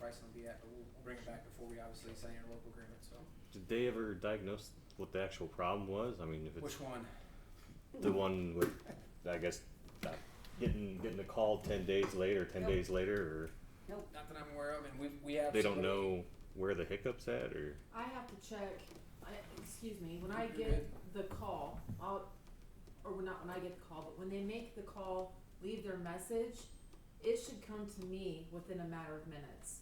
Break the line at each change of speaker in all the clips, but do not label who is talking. pricing will be at, but we'll we'll bring it back before we obviously sign our local agreement, so.
Did they ever diagnose what the actual problem was? I mean, if it's
Which one?
the one with, I guess, not getting getting a call ten days later, ten
Nope.
days later,
Nope,
Not that I'm aware of, and we, we
or
have.
they don't
somebody-
know where the hiccups at, or
I have to check, I, excuse me, when I
You're
get the call, I'll, or when- not when I get the call, but when they make the call, leave their message, it should come to me within a matter of minutes.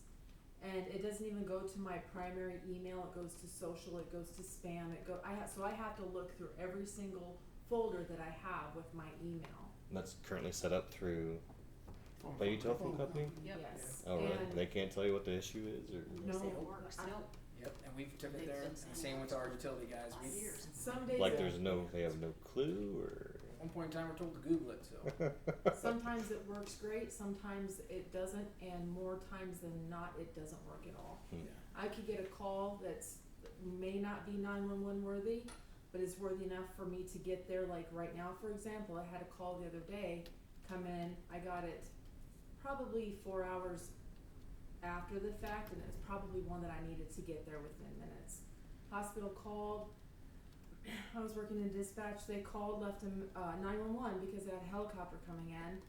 And it doesn't even go to my primary email, it goes to social, it goes to spam, it go, I have, so I have to look through every single folder that I have with my email,
and that's currently set up through
Phone
Bayou
call.
Telephone Company.
Yep.
yes.
Oh, really?
And-
They can't tell you what the issue is, or
No,
Say it works,
I-
nope,
Yep, and we've took it
They've
there,
been
and
saying
same with our utility guys,
five
we,
years.
Some days.
like
it-
there's no, they have no clue, or
at one point in time, we're told to Google it, so.
Mm-hmm.
Sometimes it works great, sometimes it doesn't, and more times than not, it doesn't work at all.
Hmm.
Yeah.
I could get a call that's, may not be nine-one-one worthy, but is worthy enough for me to get there, like right now, for example, I had a call the other day, come in, I got it probably four hours after the fact, and it's probably one that I needed to get there within minutes. Hospital called, I was working in dispatch, they called, left him, uh, nine-one-one because they had a helicopter coming in.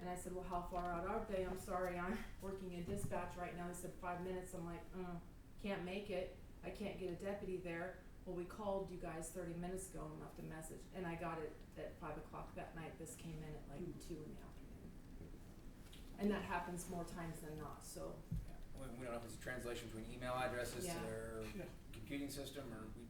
And I said, well, how far out are they? I'm sorry, I'm working in dispatch right now. They said five minutes. I'm like, mm, can't make it. I can't get a deputy there. Well, we called you guys thirty minutes ago and left a message, and I got it at five o'clock that night. This came in at like two in the afternoon. And that happens more times than not, so.
Yeah. We, we don't know if it's a translation between email addresses to
Yeah.
their computing system, or we,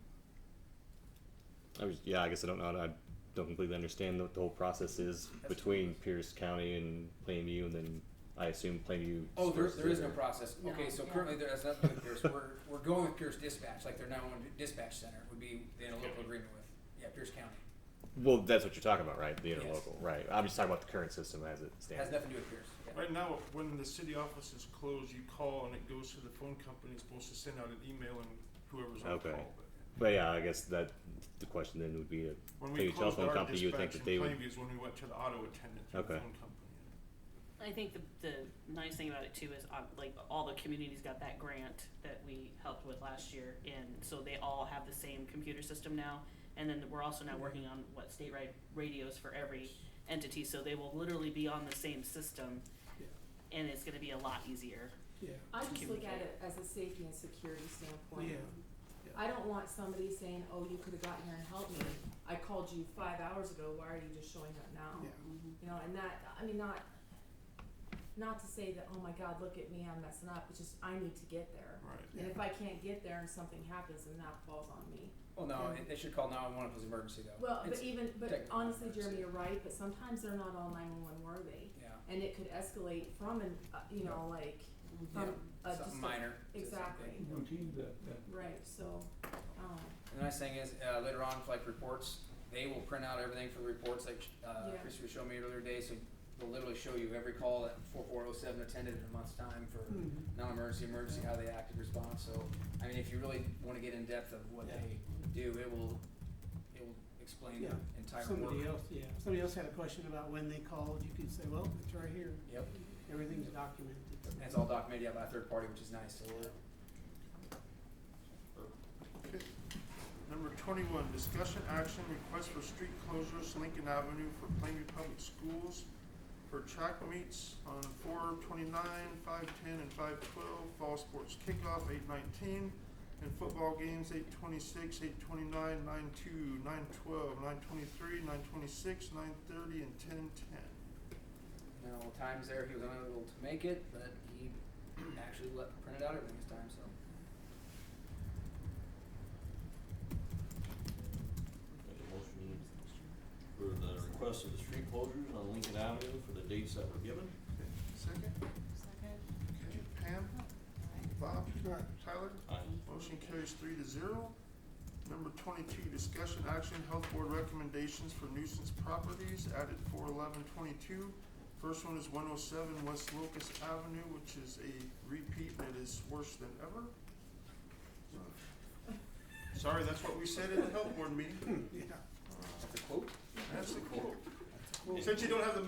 I was, yeah, I guess I don't know. I don't completely understand what the whole process is between Pierce County and Plainview, and then I assume Plainview.
oh, there,
disperses
there is
it,
no
or-
process.
No,
Okay, so
yeah.
currently, there has nothing with Pierce, we're, we're going with Pierce Dispatch, like their nine-one dispatch center would be the interlocal agreement with, yeah, Pierce County.
Well, that's what you're talking about, right? The
Yes.
interlocal, right? I'm just talking about the current system as it
Has
stands.
nothing to do with Pierce, yeah.
Right now, when the city office is closed, you call and it goes to the phone company, it's supposed to send out an email and whoever's on
Okay.
call. But
But yeah, I guess that the question then would be,
When
Hey,
we closed
telephone
our
company, you would think
dispatch in
that they would-
Plainview is when we went to the auto attendant through
Okay.
the phone company.
I think the, the nice thing about it too is um, like all the communities got that grant that we helped with last year, and so they all have the same computer system now. And then we're also
Mm-hmm.
now working on what state right radios for every entity, so they will literally be on the same system, and it's going to be a lot easier.
I just look at
Communicate.
it as a safety and security standpoint.
Yeah,
I don't want somebody saying, oh, you could have gotten here and helped me. I called you five hours ago. Why are you just showing up now? You know, and that, I mean, not, not to say that, oh my God, look at me, I'm messing up, it's just I need to get there.
Right.
And if I can't get there and something happens, then that falls on me.
Well, no, it- they should call nine-one-one if it's an emergency, though.
Well, but e-
It's-
even, but
technical
honestly,
emergency.
Jeremy, you're right, but sometimes they're not all nine-one-one worthy.
Yeah,
And it could escalate from an, uh, you know, like,
Yeah,
from a, um, uh, just
something
a-
minor. to
exactly.
something.
right, so, um,
And the nice thing is, uh, later on, for like reports, they will print out everything for the reports, like, uh,
Yeah.
Chris was showing me earlier today, so they'll literally show you every call that four four oh seven attended in a month's time for
Hmm.
Mm-hmm.
non-emergency, emergency, how they acted, response, so, I mean, if you really wanna get in depth of what
Yeah.
they do, it will, it will explain the
Yeah.
entire work.
Somebody else, yeah, if somebody else had a question about when they called, you could say, well, it's right here,
Yep,
everything's documented.
and it's all documented, yeah, by a third party, which is nice, so we're,
Number twenty-one, discussion action request for street closures Lincoln Avenue for Plainview Public Schools for track meets on four twenty-nine, five ten, and five twelve, fall sports kickoff eight nineteen, and football games eight twenty-six, eight twenty-nine, nine two, nine twelve, nine twenty-three, nine twenty-six, nine thirty, and ten ten.
No times there, he was unable to make it, but he actually let, printed out everything this time, so.
Make a motion for the request of the street closures on Lincoln Avenue for the dates that were given.
Second?
second,
Okay, Pam? Bob? Tyler?
Aye.
Motion carries three to zero. Number twenty-two, discussion action, health board recommendations for nuisance properties added for eleven twenty-two. First one is one oh seven West Locust Avenue, which is a repeat that is worse than ever. Sorry, that's what we said at the health board meeting. Uh,
Yeah.
That's a quote?
That's the quote.
Cool.
Since you don't have the